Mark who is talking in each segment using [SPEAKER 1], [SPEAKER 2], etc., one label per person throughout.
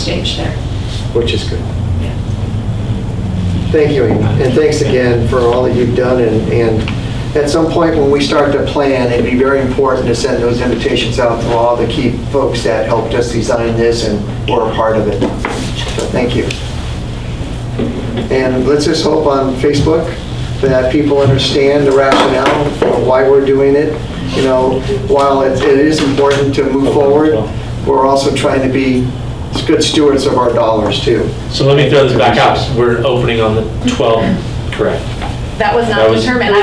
[SPEAKER 1] stage there.
[SPEAKER 2] which is good.
[SPEAKER 1] Yeah.
[SPEAKER 2] Thank you, Amy. and thanks again for all that you've done, and, and at some point when we start to plan, it'd be very important to send those invitations out to all the key folks that helped us design this and were a part of it. So thank you. And let's just hope on Facebook that people understand the rationale of why we're doing it. You know, while it it is important to move forward, we're also trying to be good stewards of our dollars, too.
[SPEAKER 3] So let me throw this back out. We're opening on the 12th. Correct.
[SPEAKER 1] That was
[SPEAKER 3] That
[SPEAKER 1] not
[SPEAKER 3] was-
[SPEAKER 1] determined. I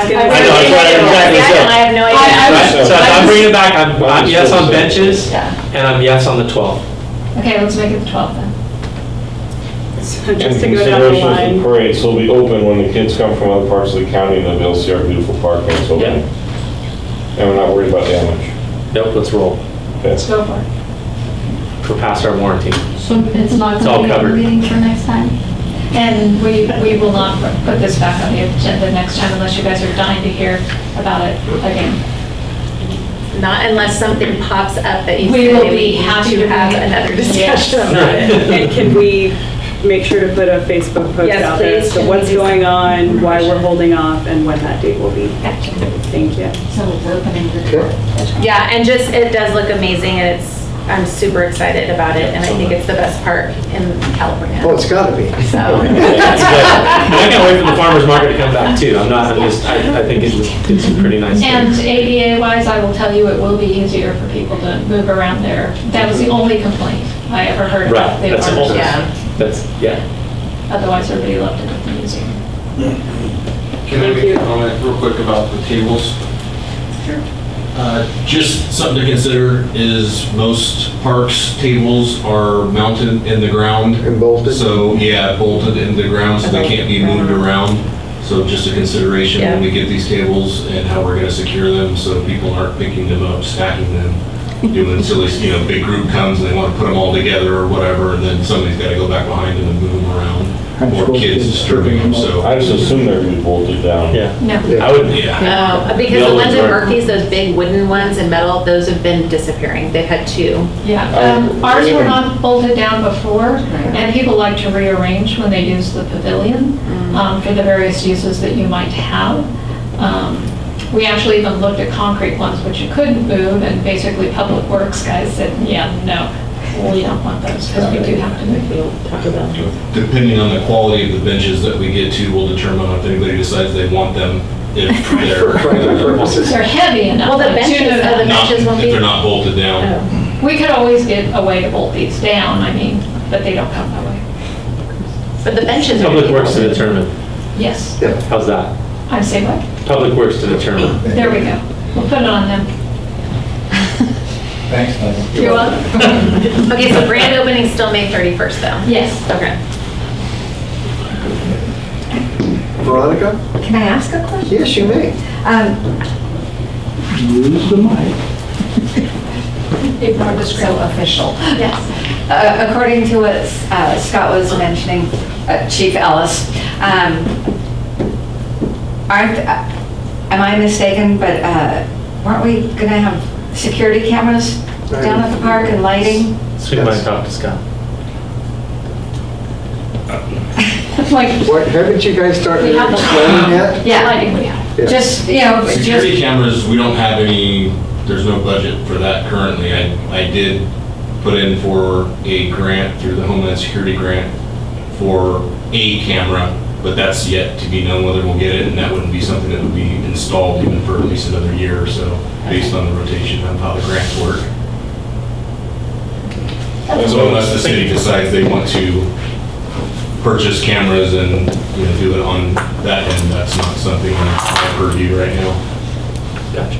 [SPEAKER 3] I know, that's what I- exactly
[SPEAKER 1] I have no idea.
[SPEAKER 3] so.
[SPEAKER 4] I-
[SPEAKER 3] So if I'm bringing it back, I'm, I'm yes on benches
[SPEAKER 1] Yeah.
[SPEAKER 3] and I'm yes on the 12th.
[SPEAKER 1] Okay, let's make it the 12th then.
[SPEAKER 4] So
[SPEAKER 5] And
[SPEAKER 4] just to go down the
[SPEAKER 5] consideration of the
[SPEAKER 4] line,
[SPEAKER 5] parade, so it'll be open when the kids come from other parts of the county, and they'll see our beautiful park when it's
[SPEAKER 3] Yeah.
[SPEAKER 5] open. And we're not worried about damage.
[SPEAKER 3] Nope, let's roll.
[SPEAKER 5] That's
[SPEAKER 1] Go for it.
[SPEAKER 3] We're past our warranty.
[SPEAKER 6] So it's not
[SPEAKER 3] It's all
[SPEAKER 6] going to be
[SPEAKER 3] covered.
[SPEAKER 6] a meeting for next time?
[SPEAKER 1] And we, we will not put this back on the agenda next time unless you guys are dying to hear about it again.
[SPEAKER 7] Not unless something pops up that you
[SPEAKER 1] We will
[SPEAKER 7] say
[SPEAKER 1] be
[SPEAKER 7] we have
[SPEAKER 1] happy
[SPEAKER 7] to
[SPEAKER 1] to
[SPEAKER 7] have
[SPEAKER 1] meet.
[SPEAKER 7] another
[SPEAKER 1] Yes.
[SPEAKER 7] discussion about it.
[SPEAKER 4] and can we make sure to put a Facebook post
[SPEAKER 7] Yes,
[SPEAKER 4] out there?
[SPEAKER 7] please,
[SPEAKER 4] So
[SPEAKER 7] can
[SPEAKER 4] what's
[SPEAKER 7] we do
[SPEAKER 4] going on, why we're holding off, and when that date will be? Thank you.
[SPEAKER 6] So it's opening the
[SPEAKER 2] Okay.
[SPEAKER 6] door.
[SPEAKER 7] Yeah, and just, it does look amazing and it's, I'm super excited about it and I think it's the best park in California.
[SPEAKER 2] Oh, it's gotta be.
[SPEAKER 7] So,
[SPEAKER 3] That's good. And I can't wait for the farmer's market to come back too. I'm not, I'm just, I, I think it's, it's a pretty nice. thing.
[SPEAKER 1] And ADA wise, I will tell you, it will be easier for people to move around there. That was the only complaint I ever heard
[SPEAKER 3] Right,
[SPEAKER 1] about the
[SPEAKER 3] that's
[SPEAKER 1] farmer's
[SPEAKER 3] almost,
[SPEAKER 7] Yeah.
[SPEAKER 1] market.
[SPEAKER 3] that's, yeah.
[SPEAKER 1] Otherwise, everybody loved it at the museum.
[SPEAKER 8] Can I
[SPEAKER 4] Thank
[SPEAKER 8] make
[SPEAKER 4] you.
[SPEAKER 8] a comment real quick about the tables? Uh, Just something to consider is most parks' tables are mounted in the ground.
[SPEAKER 2] And bolted.
[SPEAKER 8] So, yeah, bolted in the ground, so they can't be moved around. So just a consideration when we get these tables and how we're gonna secure them, so people aren't picking them up, stacking them, doing silly, you know, big group comes and they wanna put them all together or whatever, and then somebody's gotta go back behind them and move them around. Or kids disturbing them, so.
[SPEAKER 5] I just assume they're gonna be bolted down.
[SPEAKER 3] Yeah.
[SPEAKER 1] No.
[SPEAKER 3] I would,
[SPEAKER 8] Yeah.
[SPEAKER 7] no,
[SPEAKER 3] The
[SPEAKER 7] Um, because the
[SPEAKER 3] old
[SPEAKER 7] ones
[SPEAKER 3] ones are-
[SPEAKER 7] at Murphy's, those big wooden ones in metal, those have been disappearing. They've had two.
[SPEAKER 1] Yeah,
[SPEAKER 7] Uh,
[SPEAKER 5] Um,
[SPEAKER 1] um, ours were
[SPEAKER 5] even-
[SPEAKER 1] not bolted down before, and people like to rearrange when they use the pavilion
[SPEAKER 7] Mm.
[SPEAKER 1] um, for the various uses that you might have. Um, We actually even looked at concrete ones, which you couldn't move, and basically Public Works guys said, yeah, no, we don't want those, because we do have to move.
[SPEAKER 8] Depending on the quality of the benches that we get to will determine if anybody decides they want them, if they're.
[SPEAKER 1] They're heavy enough.
[SPEAKER 7] Well, the
[SPEAKER 1] like, two
[SPEAKER 7] benches
[SPEAKER 1] to-
[SPEAKER 7] are the-
[SPEAKER 8] Not,
[SPEAKER 7] benches
[SPEAKER 8] if
[SPEAKER 7] won't be- Oh.
[SPEAKER 8] they're not bolted
[SPEAKER 1] Oh.
[SPEAKER 8] down.
[SPEAKER 1] We could always get a way to bolt these down, I mean, but they don't come that way.
[SPEAKER 7] But the benches are.
[SPEAKER 3] public works to determine.
[SPEAKER 1] Yes,
[SPEAKER 3] How's that?
[SPEAKER 1] I say what?
[SPEAKER 3] Public works to determine.
[SPEAKER 1] There we go. We'll put it on them.
[SPEAKER 9] Thanks, Leslie.
[SPEAKER 1] You're welcome.
[SPEAKER 7] Okay, so grand opening's still May 31st though.
[SPEAKER 1] Yes.
[SPEAKER 7] Okay.
[SPEAKER 2] Veronica?
[SPEAKER 10] Can I ask a question?
[SPEAKER 2] Yes, you may.
[SPEAKER 10] Um,
[SPEAKER 9] Lose the mic.
[SPEAKER 1] If I was
[SPEAKER 10] So official.
[SPEAKER 1] Yes.
[SPEAKER 10] Uh, According to what uh, Scott was mentioning, uh, Chief Ellis, um, aren't, uh, am I mistaken, but uh, weren't we going to have security cameras down at the park and lighting?
[SPEAKER 3] So we might talk to Scott.
[SPEAKER 1] Like,
[SPEAKER 2] What, haven't you guys started
[SPEAKER 1] We have the-
[SPEAKER 2] explaining that?
[SPEAKER 10] Yeah.
[SPEAKER 1] lighting we have.
[SPEAKER 2] Yeah.
[SPEAKER 10] Just, you know,
[SPEAKER 8] Security
[SPEAKER 10] Oh, just,
[SPEAKER 8] cameras, we don't have any, there's no budget for that currently. I, I did put in for a grant through the Homeland Security grant for a camera, but that's yet to be known whether we'll get it, and that wouldn't be something that would be installed even for at least another year or so, based on the rotation of how the grants work. So unless the city decides they want to purchase cameras and, you know, do it on that end, that's not something on my purview right now.
[SPEAKER 3] Gotcha.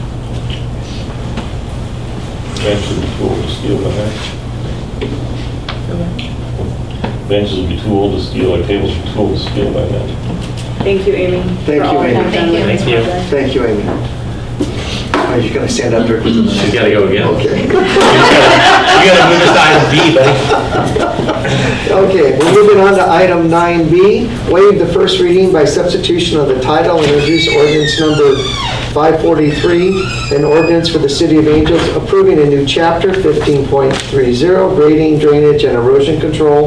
[SPEAKER 5] Benches will be too old to steal by now. Benches will be too old to steal, or tables will be too old to steal by now.
[SPEAKER 4] Thank you, Amy.
[SPEAKER 2] Thank
[SPEAKER 4] for all
[SPEAKER 2] you, Amy.
[SPEAKER 4] you've done with
[SPEAKER 3] Thank
[SPEAKER 4] this
[SPEAKER 3] you.
[SPEAKER 4] project.
[SPEAKER 2] Thank you, Amy. Are you gonna stand up there?
[SPEAKER 3] She's gotta go again.
[SPEAKER 2] Okay.
[SPEAKER 3] You gotta move us to item B, buddy.
[SPEAKER 2] Okay, we're moving on to item 9B, waive the first reading by substitution of the title and introduce ordinance number 543, an ordinance for the City of Angels approving a new chapter 15.30, grading, drainage, and erosion control